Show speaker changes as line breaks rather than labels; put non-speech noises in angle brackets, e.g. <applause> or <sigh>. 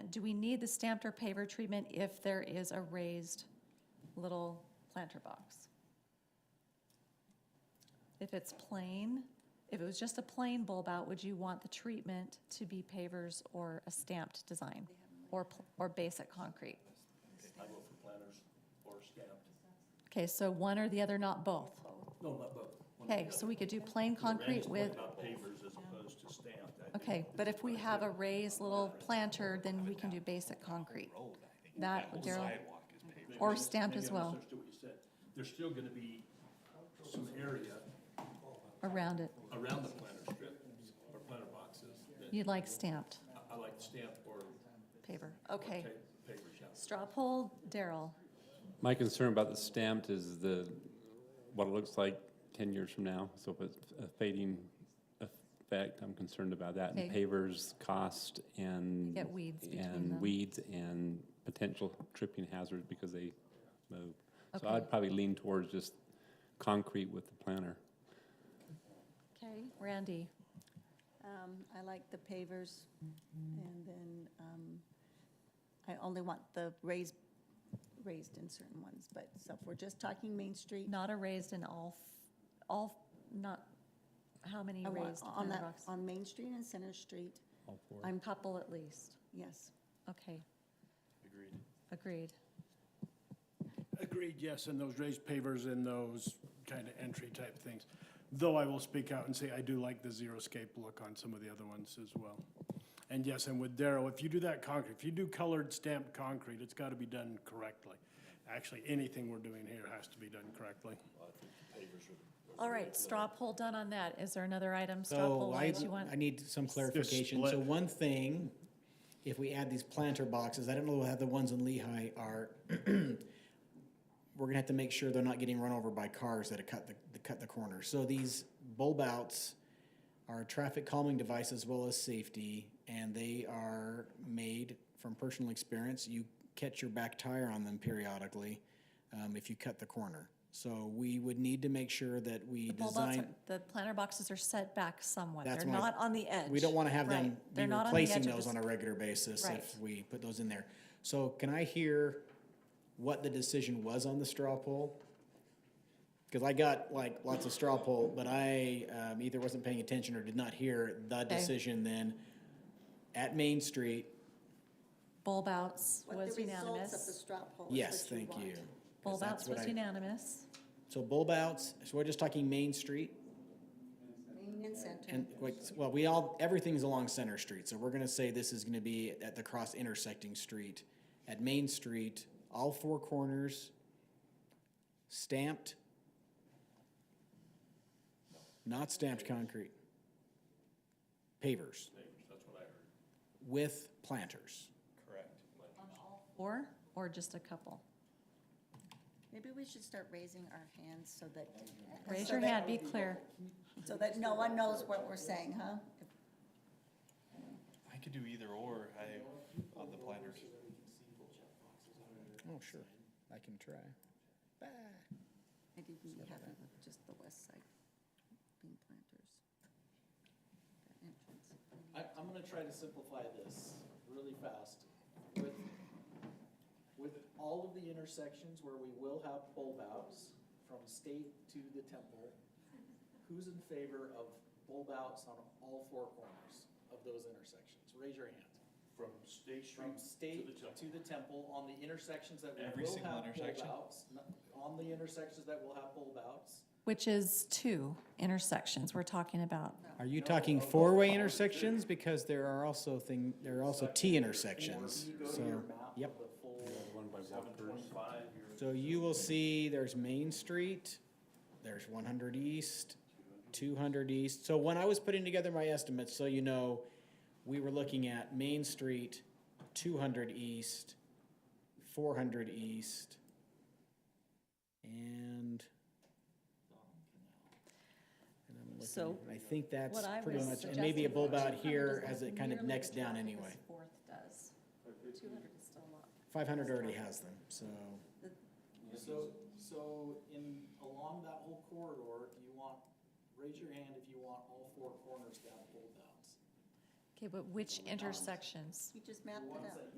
treatment, do we need the stamped or paver treatment if there is a raised little planter box? If it's plain, if it was just a plain bulb out, would you want the treatment to be pavers or a stamped design? Or, pl- or basic concrete?
I go for planters or stamped.
Okay, so one or the other, not both.
No, but, but. one or the
Okay,
other.
so we could do plain concrete with,
About pavers as opposed to stamped. I think
okay, but if we have a raised little planter, then we can do basic concrete. That, Daryl,
maybe-
or stamped as
maybe I
well.
misunderstood what you said. There's still gonna be some area
around it.
around the planter strip or planter boxes that
You'd like stamped
I- I like stamped or
paver. Okay.
pa- pavers, yeah.
Straw poll, Daryl.
My concern about the stamped is the, what it looks like ten years from now, so if it's a fading effect, I'm concerned about that. And
Okay.
pavers, cost, and.
Get weeds between them.
And weeds and potential tripping hazards because they move. So
Okay.
I'd probably lean towards just concrete with the planter.
Okay. Randy,
Um, I like the pavers, and then, um, I only want the raised, raised in certain ones, but, so if we're just talking Main Street,
not a raised in all, f- all, not, how many
I want,
raised
on
planter
that,
boxes?
on Main Street and Center Street,
All for it.
I'm,
Couple at least.
yes.
Okay. Agreed. Agreed.
Agreed, yes, and those raised pavers and those kind of entry type things. Though I will speak out and say I do like the zero-scape look on some of the other ones as well. And yes, and with Darrow, if you do that concrete, if you do colored stamped concrete, it's got to be done correctly. Actually, anything we're doing here has to be done correctly.
All right, straw poll done on that. Is there another item, straw poll
So I,
that you want?
I need some clarification. So
split.
one thing, if we add these planter boxes, I don't know how the ones in Lehigh are. <clears throat> We're gonna have to make sure they're not getting run over by cars that have cut the, that cut the corner. So these bulb outs are a traffic calming device as well as safety, and they are made from personal experience. You catch your back tire on them periodically, um, if you cut the corner. So we would need to make sure that we
The bulb outs
design.
are- The planter boxes are set back somewhat.
That's
They're
my-
not on the edge.
We don't want to have them
Right.
be
They're not on the
replacing
edge of
those
the
on a regular basis
Right.
if we put those in there. So can I hear what the decision was on the straw poll? Because I got like lots of straw poll, but I um, either wasn't paying attention or did not hear the decision then at Main Street.
Bulb outs
What
was
the results of the
unanimous.
straw poll is
Yes,
what you
thank
want.
you. 'Cause
Bulb
that's
outs
what
was
I-
unanimous.
So bulb outs, so we're just talking Main Street?
Main and Center,
And like, well, we all, everything's along Center Street, so we're gonna say this is gonna be at the cross intersecting street, at Main Street, all four corners, stamped, not stamped concrete, pavers. With planters.
Or, or just a couple?
maybe we should start raising our hands so that.
Raise
so
your hand,
that-
be clear.
So that no one knows what we're saying, huh?
I could do either or, I, on the planters.
Oh, sure, I can try.
I didn't have it with just the west side bean planters. That entrance.
I, I'm gonna try to simplify this really fast. With, with all of the intersections where we will have bulb outs from state to the temple, who's in favor of bulb outs on all four corners of those intersections? Raise your hand.
From State Street
From state
to the temple.
to the temple, on the intersections that we
Every
will
single
have bulb
intersection?
outs, n- on the intersections that will have bulb outs,
Which is two intersections we're talking about.
Are you talking four-way intersections? Because there are also thing, there are also T intersections,
you go to your
so,
map
yep.
of the full.
Seven twenty-five, you're
So you will see there's Main Street, there's one hundred East, two hundred East. So when I was putting together my estimates, so you know, we were looking at Main Street, two hundred East, four hundred East, and. and I'm looking
So-
at- I think that's
What I
pretty
was
much, and maybe a
suggesting
bulb
was
out
200
here
is
as
like
it kind of
nearly
necks
the
down
traffic as
anyway.
Fourth does. Two hundred is still a lot.
Five hundred already has them, so.
So, so in, along that whole corridor, do you want, raise your hand if you want all four corners to have bulb outs.
Okay, but which intersections?
You just mapped
The
it
ones
out.
that